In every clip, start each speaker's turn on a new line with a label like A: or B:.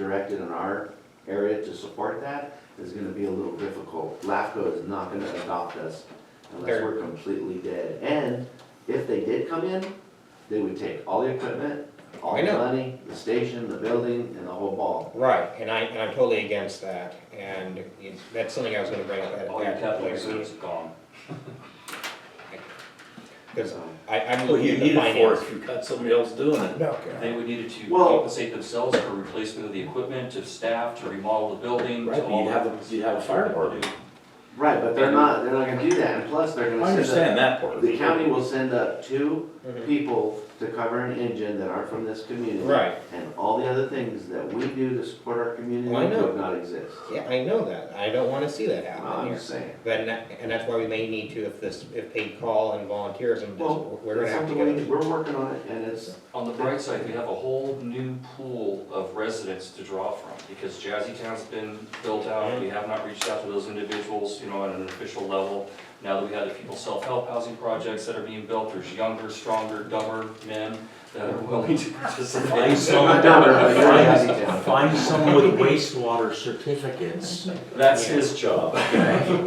A: directed in our area to support that is gonna be a little difficult. LAFCO is not gonna adopt us unless we're completely dead. And if they did come in, they would take all the equipment, all
B: I
A: the
B: know.
A: money, the station, the building, and the whole ball.
B: Right, and I, and I'm totally against that, and it- that's something I was gonna bring up at
A: Oh,
C: Oh,
D: All your
B: that
D: capital
B: later.
D: reserves gone.
B: Because
A: So-
B: I, I'm
E: What do
B: looking
E: you
B: at
E: need
B: the
E: it for
B: finance.
E: if you've got somebody else doing it?
F: No,
D: They would need it to
A: Well-
D: compensate themselves for replacement of the equipment, to staff, to remodel the building, to
E: Right, but
D: all
E: you'd have,
D: that.
E: a- you'd have a fire department.
A: Right, but they're not, they're not gonna do that, and plus they're
E: I
A: gonna
E: understand
A: send
E: that
A: up,
E: part.
A: the county will send up two
B: Mhm.
A: people to cover an engine that aren't from this community.
B: Right,
A: And all the other things that we do to support our community
B: Well, I know.
A: would not exist.
B: yeah, I know that, I don't wanna see that happen
A: Ah, I'm
B: here.
A: just saying.
B: Then, that- and that's why we may need to, if this, if paid call and volunteerism,
A: Well,
B: doesn't- we're gonna
A: that's
B: have to
A: something
B: get.
A: we- We're working on it, and it's,
D: On the bright side, we have a whole new pool of residents to draw from, because Jazzy Town's been built out, we have not reached out to those individuals, you know, on an official level. Now that we have the people self-help housing projects that are being built, there's younger, stronger, dumber men that are willing to participate.
E: Find someone,
A: Not down there, but you're in Yazoo Town.
E: find, find someone with wastewater certificates
D: That's his job.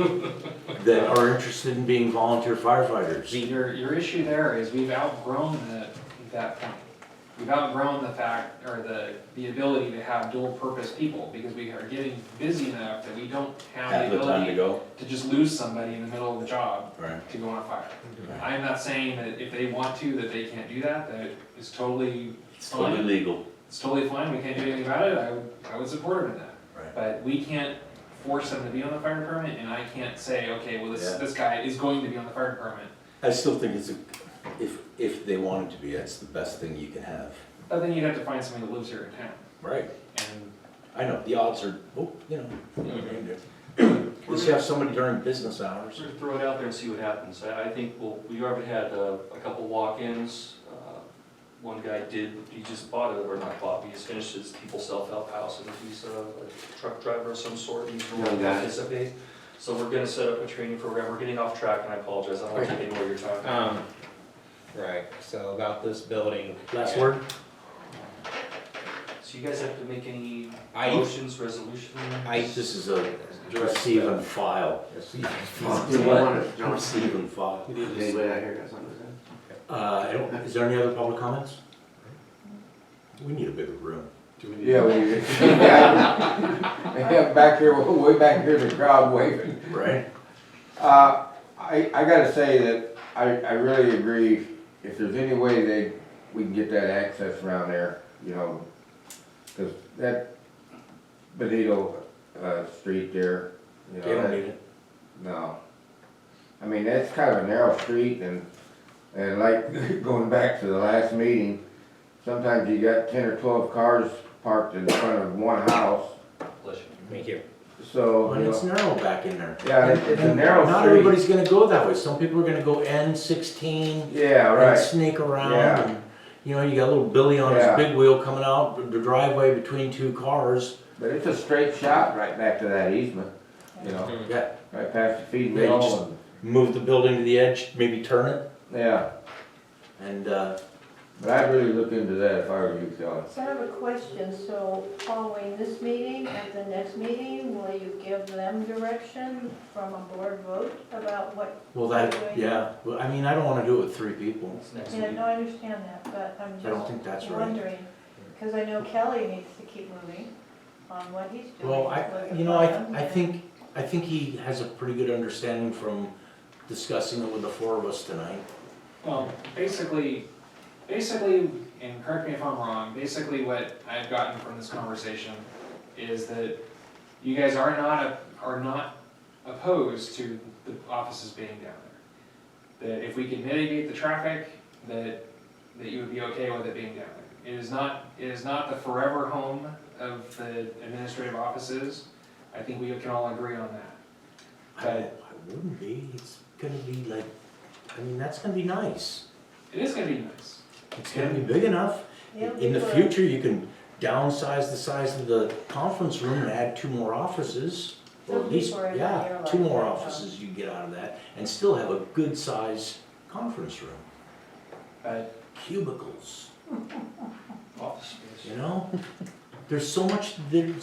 E: that are interested in being volunteer firefighters.
G: Your, your issue there is we've outgrown the, that point. We've outgrown the fact, or the, the ability to have dual purpose people, because we are getting busy enough that we don't have
E: Have
G: the
E: the time to
G: ability
E: go.
G: to just lose somebody in the middle of the job
E: Right.
G: to go on fire. I'm not saying that if they want to, that they can't do that, that is totally
E: It's totally
G: fine,
E: legal.
G: it's totally fine, we can't do anything about it, I would, I would support them in that.
E: Right.
G: But we can't force them to be on the fire department, and I can't say, okay, well, this,
E: Yeah.
G: this guy is going to be on the fire department,
E: I still think it's a, if, if they wanted to be, that's the best thing you can have.
G: But then you'd have to find somebody that lives here in town,
E: Right.
G: and
E: I know, the odds are, oh, you know. you know what you're gonna do. At least you Mm-hmm. have somebody during business hours.
D: Sort of throw it out there and see what happens. I, I think, well, we already had uh, a couple walk-ins. Uh, One guy did, he just bought it, or not bought, he just finished his people self-help house, and he's uh, a truck driver of some sort, and he's going
A: Young
D: to
A: guy.
D: participate. So we're gonna set up a training program. We're getting off track, and I apologize, I don't want to take any more of your time.
B: Um, right, so about this building.
E: Last
B: yeah.
E: word?
D: So you guys have to make any
B: I,
D: motions, resolution?
B: I
E: This is a receive and file.
A: you want to, John,
E: Receive and file.
A: anybody out here got something to say?
E: Uh, I don't, is there any other public comments? We need a bigger room.
C: Yeah, we, yeah, yeah, back here, way back here, the crowd waving.
E: Right.
C: Uh, I, I gotta say that I, I really agree, if there's any way they, we can get that access around there, you know, cause that Benito, uh, street there, you know.
E: They don't
C: that-
E: need it.
C: No. I mean, that's kind of a narrow street and, and like going back to the last meeting, sometimes you got ten or twelve cars parked in front of one house,
D: Bless you.
B: thank you.
C: so,
E: And
C: you
E: it's
C: know,
E: narrow back in there.
C: Yeah, it- it's a narrow
E: Not
C: street.
E: everybody's gonna go that way. Some people are gonna go N sixteen
C: yeah,
E: and
C: right,
E: snake around.
C: Yeah.
E: and, You know, you got little Billy on his
C: Yeah.
E: big wheel coming out the driveway between two cars.
C: but it's a straight shot right back to that easement, you know,
E: Yeah.
C: right past the feed
E: They
C: mill
E: just-
C: and,
E: Move the building to the edge, maybe turn it,
C: yeah,
E: and uh,
C: but I'd really look into that if I were you, Kelly.
H: So I have a question, so following this meeting, at the next meeting, will you give them direction from a board vote about what,
E: well, that yeah. Well, I mean, I don't want to do it with three people.
D: It's next
H: yeah,
D: meeting.
H: no, I understand that, but I'm
E: I don't think that's
H: just
E: right.
H: wondering, because I know Kelly needs to keep moving on what he's doing.
E: Well, I,
H: with the
E: you know, I,
H: plan,
E: I
H: and-
E: think, I think he has a pretty good understanding from discussing it with the four of us tonight.
G: well, basically, basically, and correct me if I'm wrong, basically what I've gotten from this conversation is that you guys are not, a- are not opposed to the offices being down there. That if we can mitigate the traffic, that, that you would be okay with it being down there. It is not, it is not the forever home of the administrative offices. I think we can all agree on that.
E: I, I wouldn't be, it's gonna be like, I mean, that's gonna be nice.
G: It is gonna be nice.
E: It's gonna be big enough.
H: Yeah,
E: In the
H: people are-
E: future, you can downsize the size of the conference room and add two more offices. Or at
H: Some
E: least,
H: people are not
E: yeah,
H: here
E: two
H: like
E: more
H: that,
E: offices you get out of that and still have a good size conference room.
G: But-
E: Cubicles,
D: Office space.
E: you know? there's so much, there,